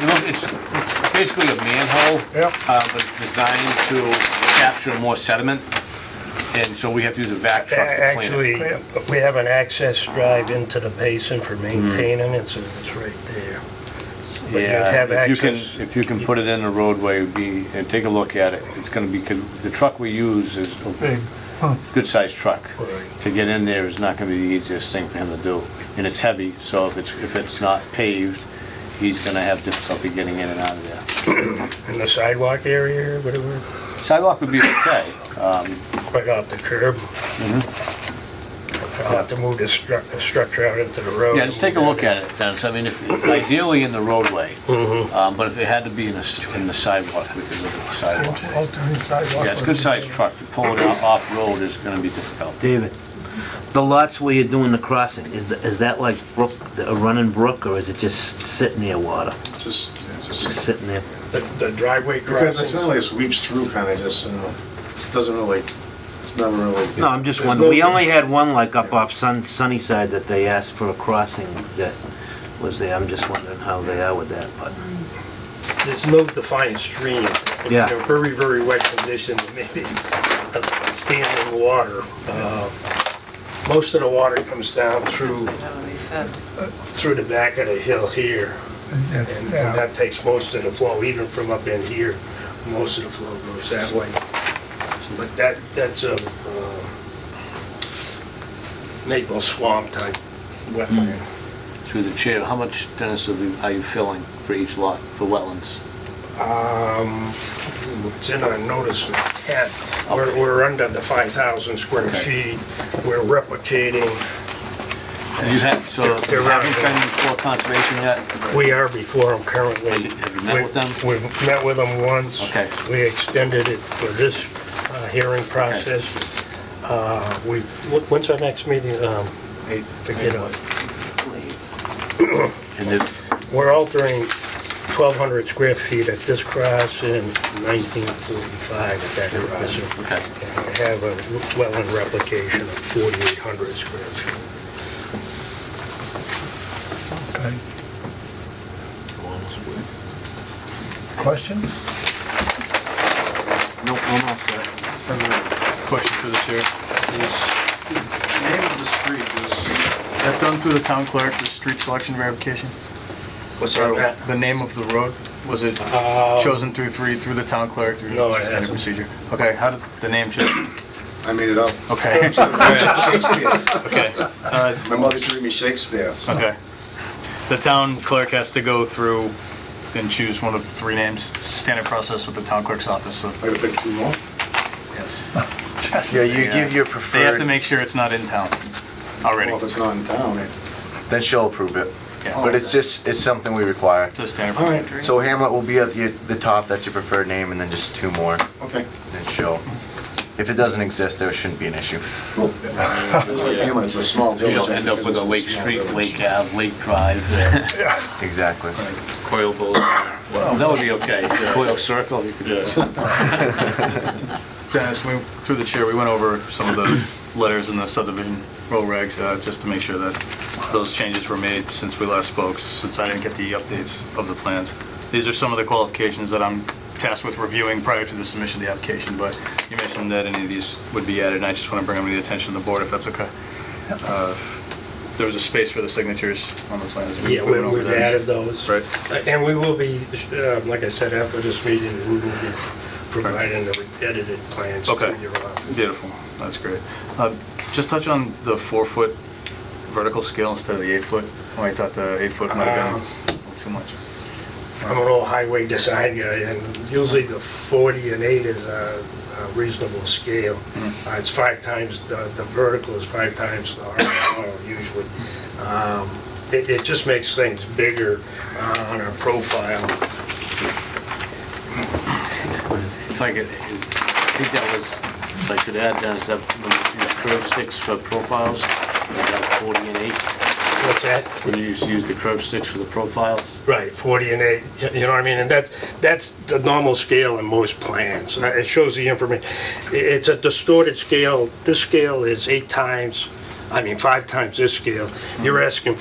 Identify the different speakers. Speaker 1: You know, it's basically a manhole.
Speaker 2: Yep.
Speaker 1: Uh, but designed to capture more sediment, and so we have to use a vac truck to clean it.
Speaker 3: Actually, we have an access drive into the basin for maintaining it, so it's right there. But you'd
Speaker 1: Yeah,
Speaker 3: have
Speaker 1: if you can,
Speaker 3: access.
Speaker 1: if you can put it in the roadway, it'd be, and take a look at it, it's gonna be, 'cause the truck we use is a
Speaker 2: Big, huh,
Speaker 1: good-sized truck.
Speaker 3: Right.
Speaker 1: To get in there is not gonna be the easiest thing for him to do, and it's heavy, so if it's, if it's not paved, he's gonna have difficulty getting in and out of there.
Speaker 3: In the sidewalk area or whatever,
Speaker 1: Sidewalk would be okay, um,
Speaker 3: right off the curb. I'll have to move the stru- the structure out into the road.
Speaker 1: Mm-hmm. yeah, just take a look at it, Dennis, I mean, if, ideally in the roadway,
Speaker 3: Mm-hmm.
Speaker 1: um, but if it had to be in the, s- in the sidewalk, we could look at the sidewalk.
Speaker 2: alternate sidewalk.
Speaker 1: Yeah, it's a good-sized truck, to pull it off- off-road is gonna be difficult.
Speaker 4: David, the lots where you're doing the crossing, is, the- is that like brook, a running brook, or is it just sitting near water?
Speaker 5: Just,
Speaker 4: Just
Speaker 5: just,
Speaker 4: sitting there?
Speaker 3: The the driveway
Speaker 5: because it's
Speaker 3: crossing.
Speaker 5: not like it sweeps through kind of just, you know, doesn't really, it's never really.
Speaker 4: No, I'm just wondering, we only had one like up off Sun, Sunnyside that they asked for a crossing that was there, I'm just wondering how they are with that, but,
Speaker 3: There's no defined stream.
Speaker 4: Yeah.
Speaker 3: In a very, very wet condition, maybe uh, standing water. Uh, Most of the water comes down through, through the back of the hill here. And and that takes most of the flow, even from up in here, most of the flow goes that way. But that, that's a uh, maple swamp type wetland.
Speaker 1: Through the chair, how much, Dennis, are you- are you filling for each lot for wetlands?
Speaker 3: Um, It's in our notice of intent. We're, we're under the 5,000 square
Speaker 1: Okay.
Speaker 3: feet. We're replicating.
Speaker 1: You have, so have you
Speaker 3: They're around
Speaker 1: been
Speaker 3: there.
Speaker 1: before conservation yet?
Speaker 3: We are before them
Speaker 1: Have
Speaker 3: currently.
Speaker 1: you- have you met with them?
Speaker 3: We've we've met with them once.
Speaker 1: Okay.
Speaker 3: We extended it for this uh, hearing process. Uh, We, wh- when's our next meeting? Um,
Speaker 5: I think
Speaker 3: you know,
Speaker 1: And the-
Speaker 3: We're altering 1,200 square feet at this cross and 1945 at that crossing.
Speaker 1: Okay,
Speaker 3: I have a wetland replication of 4,800 square feet.
Speaker 2: Okay. uh, Questions?
Speaker 4: no, no, no, sir.
Speaker 6: Question for the chair. Is
Speaker 5: the name of the street is,
Speaker 6: that done through the town clerk, the street selection verification?
Speaker 3: What's
Speaker 6: Or The name of the road, was it
Speaker 3: Uh,
Speaker 6: chosen through three, through the town clerk? through
Speaker 3: No, it
Speaker 6: standard
Speaker 3: hasn't.
Speaker 6: procedure? Okay, how did the name change?
Speaker 5: I made it up.
Speaker 6: Okay,
Speaker 5: Shakespeare.
Speaker 6: okay, uh,
Speaker 5: My mother used to read me Shakespeare. so-
Speaker 6: okay. The town clerk has to go through and choose one of the three names, standard process with the town clerk's office, so.
Speaker 5: Might have been two more.
Speaker 6: Yes.
Speaker 7: Yeah, you give your
Speaker 6: They have to
Speaker 7: preferred,
Speaker 6: make sure it's not in town already.
Speaker 5: Well, if it's not in town, it-
Speaker 7: then she'll approve it.
Speaker 1: Oh,
Speaker 6: Yeah.
Speaker 7: But it's just, it's something we require.
Speaker 6: It's a standard.
Speaker 5: Oh. all right,
Speaker 7: So Hamlet will be at the, the top, that's your preferred name, and then just two more, and
Speaker 5: okay.
Speaker 7: then she'll. If it doesn't exist, there shouldn't be an issue.
Speaker 5: Cool. It's like Hamlet, it's a small
Speaker 1: you
Speaker 5: village.
Speaker 1: don't
Speaker 5: I
Speaker 1: end
Speaker 5: think
Speaker 1: up with a
Speaker 5: it's
Speaker 1: Lake
Speaker 5: small
Speaker 1: Street,
Speaker 5: village.
Speaker 1: Lake Ave, Lake Drive,
Speaker 7: Exactly.
Speaker 1: Coil Boulevard. Well, That would be okay. Coil Circle, you could do it.
Speaker 6: Dennis, we, through the chair, we went over some of the letters in the subdivision roll regs, uh, just to make sure that those changes were made since we last spoke, since I didn't get the updates of the plans. These are some of the qualifications that I'm tasked with reviewing prior to the submission of the application, but you mentioned that any of these would be added, and I just want to bring them to the attention of the board, if that's okay. Uh, There was a space for the signatures on the plans. We
Speaker 3: Yeah,
Speaker 6: went
Speaker 3: we-
Speaker 6: over
Speaker 3: we've
Speaker 6: that.
Speaker 3: added those. Uh,
Speaker 6: Right.
Speaker 3: And we will be, um, like I said, after this meeting, we will be providing the edited plans to
Speaker 6: Okay.
Speaker 3: your office.
Speaker 6: Beautiful, that's great. Uh, Just touch on the four-foot vertical scale instead of the eight-foot. Oh, I thought the eight-foot might have been a little too much.
Speaker 3: I'm an old highway design guy, and usually the 40 and 8 is a a reasonable scale.
Speaker 6: Mm-hmm.
Speaker 3: Uh, It's five times, the the vertical is five times the horizontal usually. Um, It it just makes things bigger uh, on our profile.
Speaker 1: If I could, is- I think that was, if I could add, Dennis, that when you use curve sticks for profiles, you got 40 and 8.
Speaker 3: What's that?
Speaker 1: When you use- use the curve sticks for the profiles,
Speaker 3: Right, 40 and 8, y- you know what I mean? And that's, that's the normal scale in most plans. Uh, It shows the information, it's a distorted scale, this scale is eight times I mean, five times this scale, you're asking